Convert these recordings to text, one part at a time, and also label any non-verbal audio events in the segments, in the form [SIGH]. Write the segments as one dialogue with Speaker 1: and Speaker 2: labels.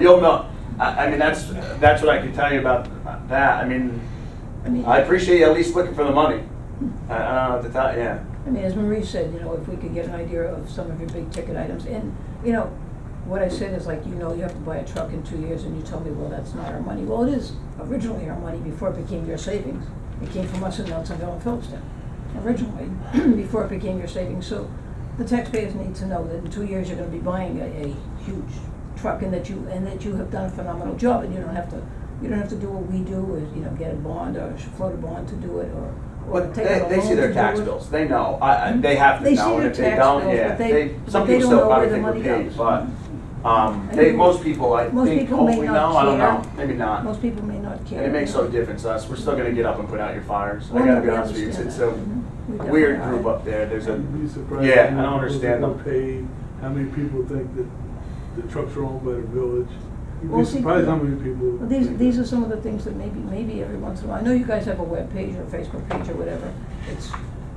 Speaker 1: You'll know. I, I mean, that's, that's what I can tell you about that. I mean,
Speaker 2: I mean,
Speaker 1: I
Speaker 2: I
Speaker 1: appreciate you at least looking for the money. I, I don't know what to tell, yeah.
Speaker 2: mean, as Marie said, you know, if we could get an idea of some of your big ticket items, and, you know, what I said is like, you know, you have to buy a truck in two years, and you tell me, well, that's not our money. Well, it is originally our money before it became your savings. It came from us in Nelsonville and Phillipstown, originally, [CLEARS THROAT] before it became your savings. So the taxpayers need to know that in two years, you're gonna be buying a, a huge truck, and that you, and that you have done a phenomenal job, and you don't have to, you don't have to do what we do, is, you know, get a bond or float a bond to do it, or, or
Speaker 1: But
Speaker 2: take out
Speaker 1: they,
Speaker 2: a
Speaker 1: they see
Speaker 2: loan
Speaker 1: their
Speaker 2: to
Speaker 1: tax
Speaker 2: do it. Mm-hmm.
Speaker 1: bills, they know, I, I, they have to
Speaker 2: They see
Speaker 1: know, and
Speaker 2: their
Speaker 1: if they
Speaker 2: tax
Speaker 1: don't,
Speaker 2: bills,
Speaker 1: yeah,
Speaker 2: but they-
Speaker 1: they,
Speaker 2: but
Speaker 1: some
Speaker 2: they
Speaker 1: people
Speaker 2: don't
Speaker 1: still
Speaker 2: know
Speaker 1: probably
Speaker 2: where
Speaker 1: think
Speaker 2: the
Speaker 1: we're
Speaker 2: money
Speaker 1: paid,
Speaker 2: goes. Mm-hmm.
Speaker 1: but, um,
Speaker 2: I
Speaker 1: they,
Speaker 2: mean,
Speaker 1: most people, I
Speaker 2: most
Speaker 1: think,
Speaker 2: people may
Speaker 1: hopefully
Speaker 2: not
Speaker 1: know, I don't know,
Speaker 2: care.
Speaker 1: maybe not.
Speaker 2: Most people may not care.
Speaker 1: And it makes no difference to us, we're still gonna get up and put out your fires, I
Speaker 2: Well,
Speaker 1: gotta be
Speaker 2: we
Speaker 1: honest with you, it's,
Speaker 2: understand
Speaker 1: it's
Speaker 2: that.
Speaker 1: a
Speaker 2: Mhm. We definitely
Speaker 1: weird
Speaker 2: are.
Speaker 1: group up there, there's a,
Speaker 3: You'd be surprised
Speaker 1: yeah,
Speaker 3: how
Speaker 1: I
Speaker 3: many
Speaker 1: don't understand
Speaker 3: people
Speaker 1: them.
Speaker 3: Paid, how many people think that the trucks are owned by the village? You'd
Speaker 2: Well,
Speaker 3: be
Speaker 2: see,
Speaker 3: surprised how many people.
Speaker 2: Well, These,
Speaker 3: think
Speaker 2: these
Speaker 3: that.
Speaker 2: are some of the things that maybe, maybe every once in a while, I know you guys have a web page or a Facebook page or whatever, it's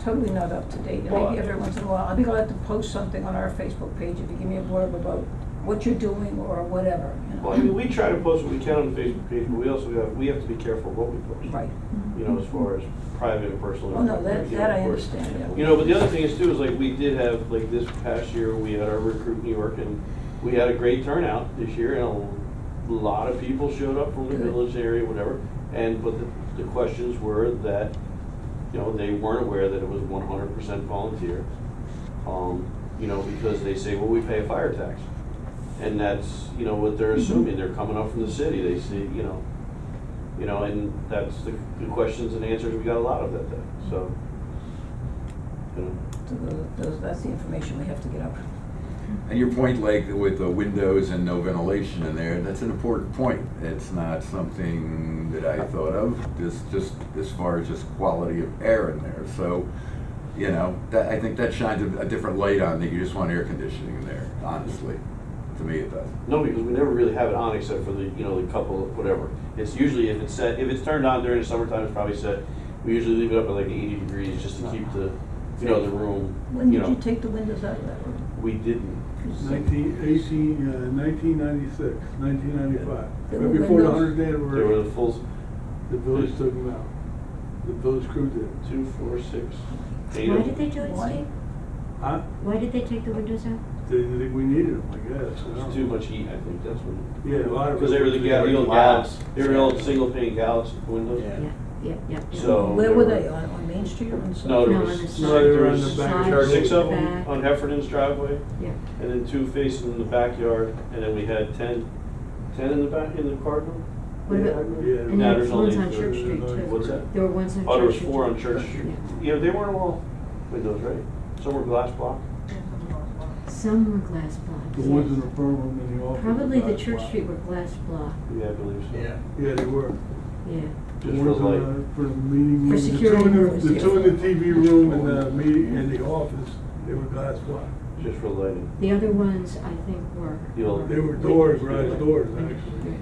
Speaker 2: totally not up to date, and
Speaker 1: Well,
Speaker 2: maybe every once in a while, I'd be glad to post something on our Facebook page if you give me a blurb about what you're doing or whatever, you know.
Speaker 4: Well, I mean, we try to post what we can on the Facebook page, but we also have, we have to be careful what we post.
Speaker 2: Right. Mm-hmm.
Speaker 4: You know, as far as private and personal.
Speaker 2: Oh, no, that,
Speaker 4: you know,
Speaker 2: that I
Speaker 4: of course.
Speaker 2: understand, yeah.
Speaker 4: You know, but the other thing is too, is like, we did have, like, this past year, we had our recruit New York, and we had a great turnout this year, and a lot of people showed up from the
Speaker 2: Good.
Speaker 4: village area, whatever, and, but the, the questions were that, you know, they weren't aware that it was one hundred percent volunteer. Um, you know, because they say, well, we pay a fire tax. And that's, you know, what they're assuming, they're coming up from the city, they see, you know, you know, and that's the, the questions and answers, we got a lot of that day, so. You know,
Speaker 2: So tho- those, that's the information we have to get out.
Speaker 5: And your point, like with the windows and no ventilation in there, that's an important point. It's not something that I thought of, just, just as far as just quality of air in there. So, you know, that, I think that shines a, a different light on that you just want air conditioning in there, honestly. To me, it does.
Speaker 4: no, because we never really have it on except for the, you know, the couple, of whatever. It's usually if it's set, if it's turned on during the summertime, it's probably set, we usually leave it up at like eighty degrees just to keep the, you know, the room,
Speaker 2: When
Speaker 4: you
Speaker 2: did you
Speaker 4: know.
Speaker 2: take the windows out of that room?
Speaker 4: We didn't,
Speaker 3: Nineteen, eighteen, uh, nineteen ninety-six, nineteen ninety-five,
Speaker 2: There
Speaker 3: right
Speaker 2: were
Speaker 3: before the
Speaker 2: windows.
Speaker 3: hundredth
Speaker 4: there were
Speaker 3: anniversary,
Speaker 4: the full
Speaker 3: the village took them out. The village crew did.
Speaker 4: two, four, six, eight
Speaker 6: Why
Speaker 4: of
Speaker 6: did they do it,
Speaker 2: Why?
Speaker 6: Steve?
Speaker 3: Huh?
Speaker 6: Why did they take the windows out?
Speaker 3: They didn't think we needed them, I guess. I don't
Speaker 4: It's too
Speaker 3: know.
Speaker 4: much heat, I think, that's what.
Speaker 3: Yeah, a lot of.
Speaker 4: Because they were the, ga- the old
Speaker 1: Glass.
Speaker 4: gallows, they were old single pane gallows windows.
Speaker 1: Yeah.
Speaker 6: Yeah, yeah, yeah. yeah.
Speaker 4: So-
Speaker 2: Where were they, on, on Main Street or on? South?
Speaker 4: No,
Speaker 6: No,
Speaker 4: there
Speaker 6: on
Speaker 4: was-
Speaker 6: the
Speaker 4: no,
Speaker 6: side,
Speaker 4: they were
Speaker 6: there
Speaker 4: on
Speaker 6: was
Speaker 3: the back.
Speaker 6: side,
Speaker 3: Sure,
Speaker 4: Six of them
Speaker 6: back.
Speaker 4: on Heffernan's driveway,
Speaker 6: Yeah,
Speaker 4: and then two facing the backyard, and then we had ten, ten in the back, in the cardinal?
Speaker 6: What about-
Speaker 3: Yeah.
Speaker 6: and
Speaker 4: Now
Speaker 6: there
Speaker 4: there's
Speaker 6: was ones
Speaker 4: only-
Speaker 6: on Church Street too.
Speaker 4: What's that?
Speaker 6: There were ones on Church Street.
Speaker 4: Oh, there was four on Church
Speaker 3: Yeah.
Speaker 4: Street. Yeah, they weren't all windows, right? Some were glass block.
Speaker 6: Some were glass blocks.
Speaker 3: The ones in
Speaker 6: yes.
Speaker 3: the front room and the office.
Speaker 6: Probably the
Speaker 3: were
Speaker 6: Church
Speaker 3: black.
Speaker 6: Street were glass block,
Speaker 4: Yeah, I believe so.
Speaker 1: Yeah.
Speaker 3: Yeah, they were.
Speaker 6: yeah.
Speaker 3: The
Speaker 4: Just for
Speaker 3: ones in
Speaker 4: light.
Speaker 3: the- For the meeting.
Speaker 6: For
Speaker 3: room. The two
Speaker 6: security
Speaker 3: in the-
Speaker 6: rooms,
Speaker 3: The
Speaker 6: yeah.
Speaker 3: two in the TV room and the meeting, and the office, they were glass block.
Speaker 4: Just for lighting.
Speaker 6: The other ones, I think, were. um,
Speaker 4: The old-
Speaker 3: They were doors,
Speaker 4: Yeah.
Speaker 3: right, doors, actually.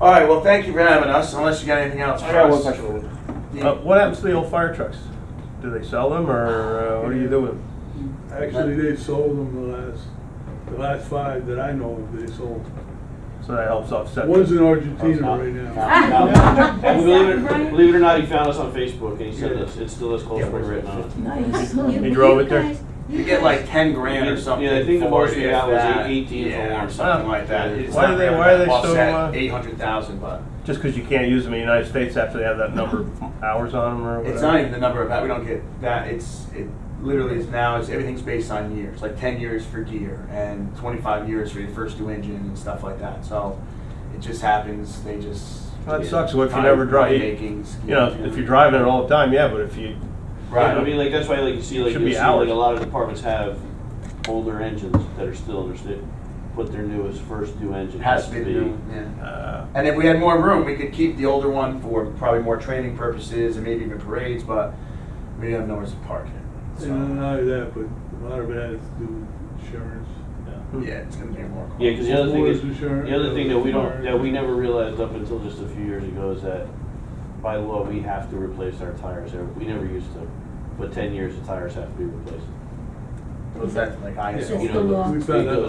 Speaker 1: All right, well, thank you for having us, unless you got anything else
Speaker 7: I
Speaker 1: for
Speaker 7: got one
Speaker 1: us.
Speaker 7: question.
Speaker 1: Yeah.
Speaker 7: Uh, what happens to the old fire trucks? Do they sell them or uh, what do you do with them?
Speaker 3: Actually, they sold them the last, the last five that I know of, they sold.
Speaker 7: So that helps offset.
Speaker 3: One's in
Speaker 7: the-
Speaker 3: Argentina right now.
Speaker 6: [LAUGHS]
Speaker 4: Now- and Believe
Speaker 6: Is that
Speaker 4: it,
Speaker 6: right?
Speaker 4: believe it or not, he found us on Facebook and he sent
Speaker 3: Yeah.
Speaker 4: us, it still has Cold
Speaker 1: Yeah,
Speaker 4: Spring
Speaker 1: it was
Speaker 4: written on it. [LAUGHS]
Speaker 2: Nice.
Speaker 6: [LAUGHS]
Speaker 7: You drove it there?
Speaker 1: You get like ten grand or something.
Speaker 4: Yeah, I think the
Speaker 1: for
Speaker 4: most we
Speaker 1: it, if
Speaker 4: got was
Speaker 1: that.
Speaker 4: eight- eighteen for
Speaker 1: Yeah,
Speaker 4: one.
Speaker 1: or something
Speaker 7: Huh.
Speaker 1: like that. It's
Speaker 7: Why
Speaker 1: not
Speaker 7: do they-
Speaker 1: really
Speaker 7: why are they
Speaker 1: offset
Speaker 7: so, uh,
Speaker 1: Eight hundred thousand, but
Speaker 7: Just because you can't use them in the United States after they have that number of hours on them or whatever?
Speaker 1: it's not even the number of, that we don't get that, it's, it literally is now, it's, everything's based on years, like ten years for gear and twenty-five years for your first new engine and stuff like that, so it just happens, they just.
Speaker 7: That
Speaker 1: yeah,
Speaker 7: sucks, what if you
Speaker 1: time,
Speaker 7: never drive?
Speaker 1: money making scheme,
Speaker 7: You know, if you're driving it all the time, yeah, but if you,
Speaker 4: Right, I
Speaker 1: Right,
Speaker 4: mean, like, that's why, like, you see, like,
Speaker 7: Should
Speaker 4: you
Speaker 7: be
Speaker 4: see, like,
Speaker 7: ours.
Speaker 4: a lot of departments have older engines that are still, they're still, put their newest, first new engine
Speaker 1: it has to be, the new one, yeah.
Speaker 7: uh,
Speaker 1: And if we had more room, we could keep the older one for probably more training purposes and maybe even parades, but we have nowhere to park it. So,
Speaker 3: And not only that, but a lot of it has to do with insurance.
Speaker 1: yeah, it's gonna be more.
Speaker 4: Yeah, because the other thing is,
Speaker 3: Wars, insurance,
Speaker 4: the other thing that we don't,
Speaker 3: cars.
Speaker 4: that we never realized up until just a few years ago is that by law, we have to replace our tires, There- we never used to, but ten years, the tires have to be replaced.
Speaker 1: Was that like ISO?
Speaker 6: It's the law.
Speaker 3: We found out